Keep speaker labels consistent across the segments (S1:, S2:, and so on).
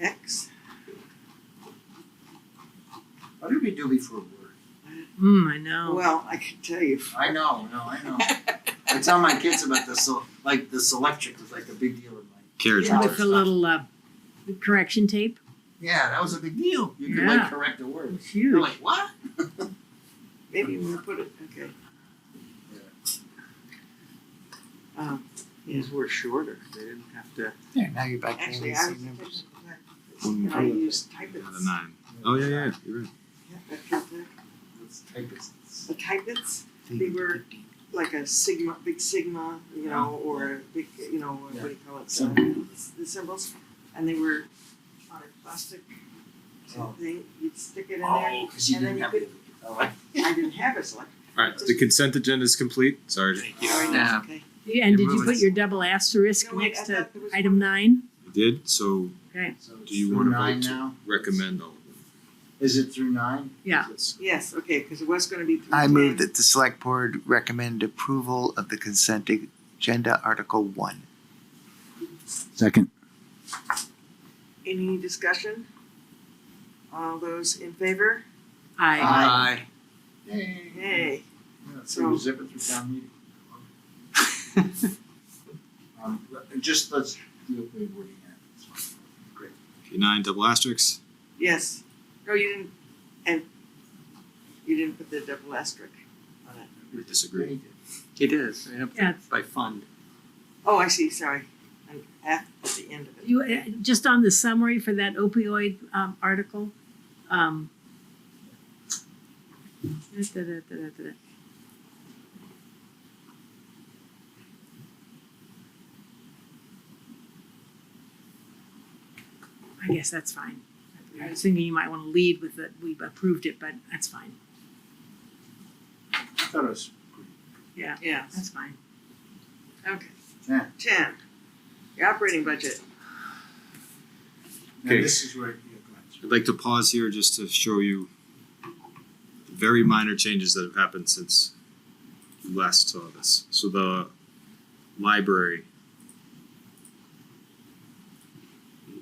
S1: X.
S2: What did we do before word?
S3: Mm, I know.
S1: Well, I can tell you.
S2: I know, no, I know. I tell my kids about this, so, like, this electric was like a big deal in my,
S4: Carriage.
S2: Yeah.
S3: With the little uh, correction tape.
S2: yeah, that was a big deal. You could like
S3: Yeah.
S2: correct a word.
S3: It's
S2: You're
S3: huge.
S2: like, what?
S1: Maybe you want to put it. Okay. Um,
S5: These were shorter. They didn't have to.
S2: Yeah, now you're back
S1: actually, I was thinking
S4: One
S1: that I
S4: more.
S1: use
S4: Yeah,
S1: typets.
S4: the nine. Oh yeah, yeah, you're right.
S1: Yeah, that feels good. The typets, they were like a sigma, big sigma, you know, or a big, you know, what do you call it? uh, The symbols, and they were on a plastic
S2: Oh.
S1: thing. You'd stick it in there.
S2: Oh, cause you
S1: And then
S2: didn't
S1: you
S2: have.
S1: could-
S2: it. Oh, I-
S1: I didn't have it, so like,
S4: All right, the consent agenda is complete. Sorry,
S2: Thank
S1: all right,
S2: you.
S5: Yeah.
S1: okay.
S3: Yeah, and
S5: It
S3: did you put
S5: moves.
S3: your double asterisk
S1: No, wait, I
S3: next to
S1: thought there was
S3: item
S1: one.
S3: nine?
S4: I did. So
S2: So it's
S4: Do you
S2: through
S4: wanna vote
S2: nine
S4: to-
S2: now?
S4: recommend all of them.
S2: Is it through nine?
S3: Yeah.
S2: It's-
S1: Yes, okay, because it was going to be. through
S6: I
S1: 10.
S6: move that the select board recommend approval of the consent agenda article one.
S7: Second.
S1: Any discussion? All those in favor?
S3: I
S2: Aye. Yay.
S1: Yay.
S2: Yeah, So we zip it through town meeting. Um, let- just let's do it by wording here. It's fine. Great.
S4: Okay, nine double asterisks.
S1: Yes. No, you didn't, and you didn't put the double asterisk on it.
S4: We disagree.
S2: Great.
S5: It is. you know,
S3: Yeah.
S5: By fund.
S1: Oh, I see, sorry. I'm at at the end of it.
S3: you uh, just on the summary for that opioid um, article. Um, da, da, da, da, da, da. I guess that's fine. I was thinking you might want to lead with that we approved it, but that's fine.
S2: I thought it was pretty.
S1: Yeah,
S3: That's fine.
S1: okay.
S2: Ten.
S1: Ten, the operating budget.
S2: Now
S4: Okay.
S2: this is where you
S4: I'd like to pause here just to show you very minor changes that have happened since you last saw this. So the library,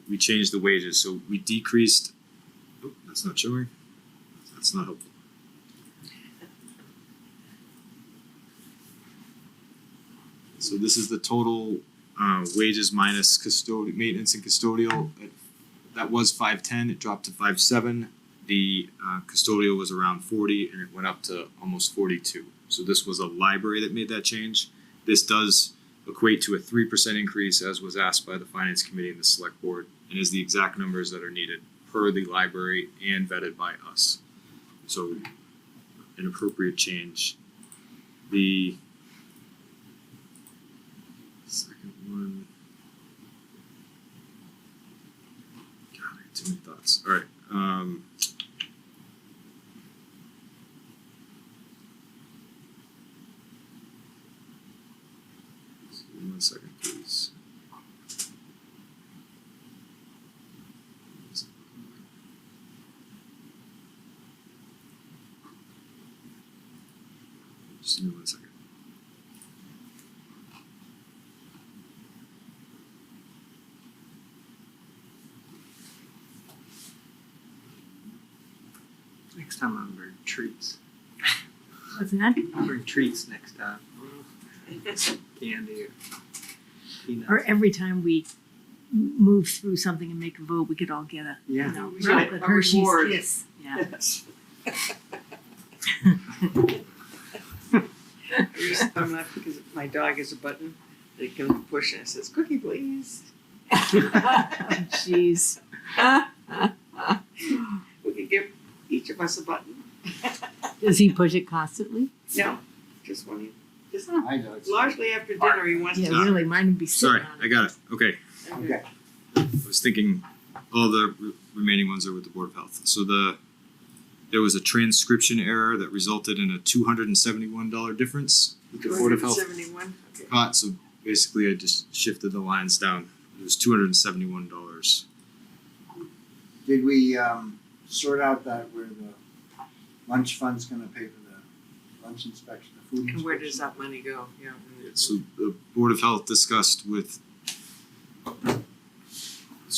S4: we changed the wages, so we decreased, oh, that's not showing, that's not helpful. So this is the total, uh, wages minus custodial, maintenance and custodial at that was five ten. It dropped to five seven. The uh, custodial was around forty, and it went up to almost forty two. So this was a library that made that change. This does equate to a three percent increase, as was asked by the finance committee and the select board, and is the exact numbers that are needed per the library and vetted by us. So, an appropriate change. The second one. God, I got too many thoughts. All right. Um, one second, please. Just give me one second.
S5: Next time I'm bring treats.
S3: What's that?
S5: I'll bring treats next time. Candy or peanuts.
S3: Or every time we m- move through something and make a vote, we could all get a, you
S5: Yeah.
S3: know,
S1: We
S3: chocolate
S1: should- a
S3: Hershey's
S1: reward.
S3: kiss. Yeah.
S1: Yes. I just- I'm not, because my dog is a button that it can push and it says cookie please.
S3: Oh, Jeez.
S1: We could give each of us a button.
S3: Does he push it constantly?
S1: No, just one, just
S2: I know. it's-
S1: largely after dinner he wants to.
S3: Yeah, really. Mine would be sitting
S4: Sorry,
S3: on
S4: I
S3: it.
S4: got it. Okay.
S2: Okay.
S4: I was thinking all the re- remaining ones are with the Board of Health. So the there was a transcription error that resulted in a two hundred and seventy one dollar difference that the Board of Health
S1: 271, okay.
S4: caught. So basically, I just shifted the lines down. It was two hundred and seventy one dollars.
S2: Did we, um, sort out that where the lunch fund's gonna pay for the lunch inspection, the food
S1: And
S2: inspection?
S1: where does that money go? Yeah.
S4: So the Board of Health discussed with